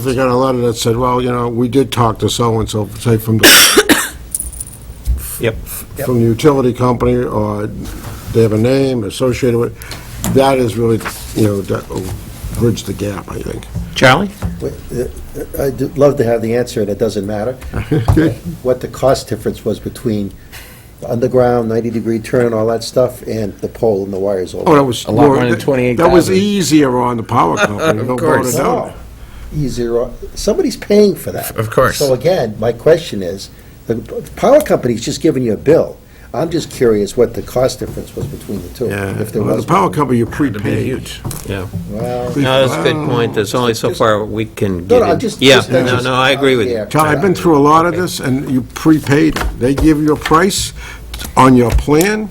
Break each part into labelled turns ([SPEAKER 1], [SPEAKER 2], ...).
[SPEAKER 1] If they got a letter that said, well, you know, we did talk to so-and-so, say from the,
[SPEAKER 2] Yep.
[SPEAKER 1] from the utility company, or they have a name associated with, it, that is really, you know, that will bridge the gap, I think.
[SPEAKER 2] Charlie?
[SPEAKER 3] I'd uh, love to have the answer, and it doesn't matter, what the cost difference was between the underground 90-degree turn and all that stuff, and the pole and the wires
[SPEAKER 1] Oh,
[SPEAKER 3] over.
[SPEAKER 1] that was.
[SPEAKER 4] A lot more
[SPEAKER 1] more-
[SPEAKER 4] than
[SPEAKER 1] That was
[SPEAKER 4] 28,000.
[SPEAKER 1] easier on the power company, no doubt
[SPEAKER 4] course.
[SPEAKER 1] about it.
[SPEAKER 3] Wow. Easier, o- somebody's paying for that.
[SPEAKER 4] Of course.
[SPEAKER 3] So again, my question is, the p- power company's just giving you a bill. I'm just curious what the cost difference was between the two.
[SPEAKER 1] Yeah,
[SPEAKER 3] if there
[SPEAKER 1] Well,
[SPEAKER 3] was
[SPEAKER 1] the power
[SPEAKER 3] one.
[SPEAKER 1] company, you prepaid.
[SPEAKER 4] huge.
[SPEAKER 2] Yeah.
[SPEAKER 3] Well,
[SPEAKER 2] No, that's a good point. There's only so far we can
[SPEAKER 3] no,
[SPEAKER 2] get
[SPEAKER 3] no,
[SPEAKER 2] in.
[SPEAKER 3] just.
[SPEAKER 2] Yeah,
[SPEAKER 3] just-
[SPEAKER 2] no, no, I agree with you.
[SPEAKER 3] Yeah.
[SPEAKER 1] Tom, I've been through a lot of this, and you prepaid, they give you a price on your plan,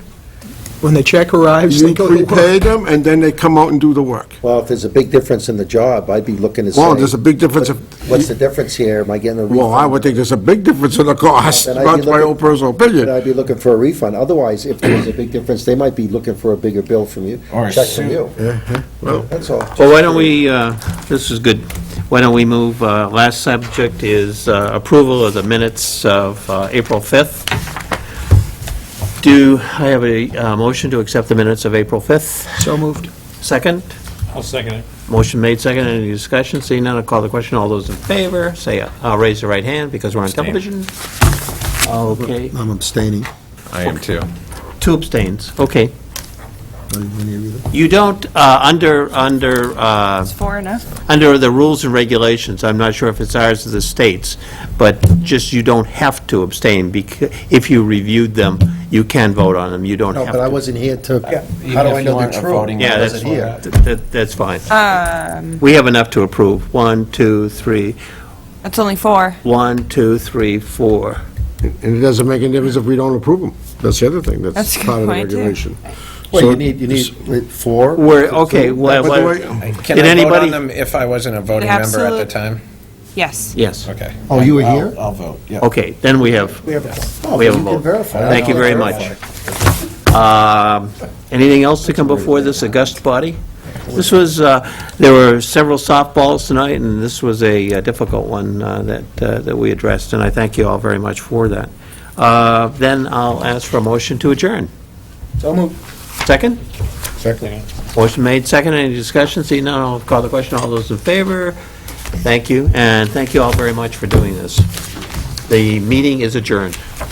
[SPEAKER 5] When the check arrives, they
[SPEAKER 1] you
[SPEAKER 5] go to work.
[SPEAKER 1] prepay them, and then they come out and do the work.
[SPEAKER 3] Well, if there's a big difference in the job, I'd be looking to say.
[SPEAKER 1] Well, there's a big difference if-
[SPEAKER 3] What's the difference here? Am I getting a refund?
[SPEAKER 1] Well, I would think there's a big difference in the cost,
[SPEAKER 3] Then I'd be
[SPEAKER 1] that's my
[SPEAKER 3] looking-
[SPEAKER 1] own personal
[SPEAKER 3] Then
[SPEAKER 1] opinion.
[SPEAKER 3] I'd be looking for a refund. Otherwise, if there was a big difference, they might be looking for a bigger bill from you,
[SPEAKER 4] Or a
[SPEAKER 3] check from
[SPEAKER 4] suit.
[SPEAKER 3] you.
[SPEAKER 1] Uh-huh.
[SPEAKER 3] That's all.
[SPEAKER 2] Well, why don't we, uh, this is good, why don't we move, uh, last subject is uh, approval of the minutes of uh, April 5th. Do I have a uh, motion to accept the minutes of April 5th?
[SPEAKER 5] So moved.
[SPEAKER 2] Second?
[SPEAKER 6] I'll second it.
[SPEAKER 2] Motion made, second, any discussion? Seeing none, I'll call the question. All those in favor, say, uh, I'll raise the right hand because we're on
[SPEAKER 6] Abstain.
[SPEAKER 2] television. Okay,
[SPEAKER 3] I'm abstaining.
[SPEAKER 4] I am too.
[SPEAKER 2] two abstains, okay. You don't, uh, under, under, uh,
[SPEAKER 7] It's four enough.
[SPEAKER 2] under the rules and regulations, I'm not sure if it's ours or the state's, but just you don't have to abstain, becau- if you reviewed them, you can vote on them, you don't
[SPEAKER 3] No,
[SPEAKER 2] have to.
[SPEAKER 3] but I wasn't here to, how
[SPEAKER 4] Even
[SPEAKER 3] do
[SPEAKER 4] if
[SPEAKER 3] I
[SPEAKER 4] you
[SPEAKER 3] know
[SPEAKER 4] aren't
[SPEAKER 3] the
[SPEAKER 4] a
[SPEAKER 3] truth?
[SPEAKER 4] voting
[SPEAKER 2] Yeah,
[SPEAKER 3] I
[SPEAKER 2] that's,
[SPEAKER 3] wasn't here.
[SPEAKER 2] th- th- that's fine.
[SPEAKER 7] Uh,
[SPEAKER 2] We have enough to approve, one, two, three,
[SPEAKER 7] It's only four.
[SPEAKER 2] one, two, three, four.
[SPEAKER 1] And it doesn't make any difference if we don't approve them. That's the other thing, that's
[SPEAKER 7] That's a good
[SPEAKER 1] part of the
[SPEAKER 7] point, too.
[SPEAKER 1] regulation.
[SPEAKER 3] Well,
[SPEAKER 1] So-
[SPEAKER 3] you need, you need wait, four?
[SPEAKER 2] We're, okay,
[SPEAKER 1] By
[SPEAKER 2] well,
[SPEAKER 1] the
[SPEAKER 2] well,
[SPEAKER 1] way,
[SPEAKER 4] Can
[SPEAKER 2] Did
[SPEAKER 4] I vote
[SPEAKER 2] anybody-
[SPEAKER 4] on them if I wasn't a voting
[SPEAKER 7] The
[SPEAKER 4] member at the
[SPEAKER 7] absolute-
[SPEAKER 4] time?
[SPEAKER 7] Yes.
[SPEAKER 2] yes,
[SPEAKER 4] Okay.
[SPEAKER 3] Oh, you were
[SPEAKER 4] I'll-
[SPEAKER 3] here?
[SPEAKER 4] I'll vote, yeah.
[SPEAKER 2] okay, then we have, we have
[SPEAKER 3] Oh,
[SPEAKER 2] a
[SPEAKER 3] you can
[SPEAKER 2] vote.
[SPEAKER 3] verify.
[SPEAKER 2] Thank you very much. Um, Anything else to come before this august body? This was, uh, there were several softballs tonight, and this was a uh, difficult one uh, that, uh, that we addressed, and I thank you all very much for that. Uh, Then I'll ask for a motion to adjourn.
[SPEAKER 3] So moved.
[SPEAKER 2] Second?
[SPEAKER 3] Second.
[SPEAKER 2] Motion made, second, any discussion? Seeing none, I'll call the question, all those in favor? Thank you, and thank you all very much for doing this. The meeting is adjourned.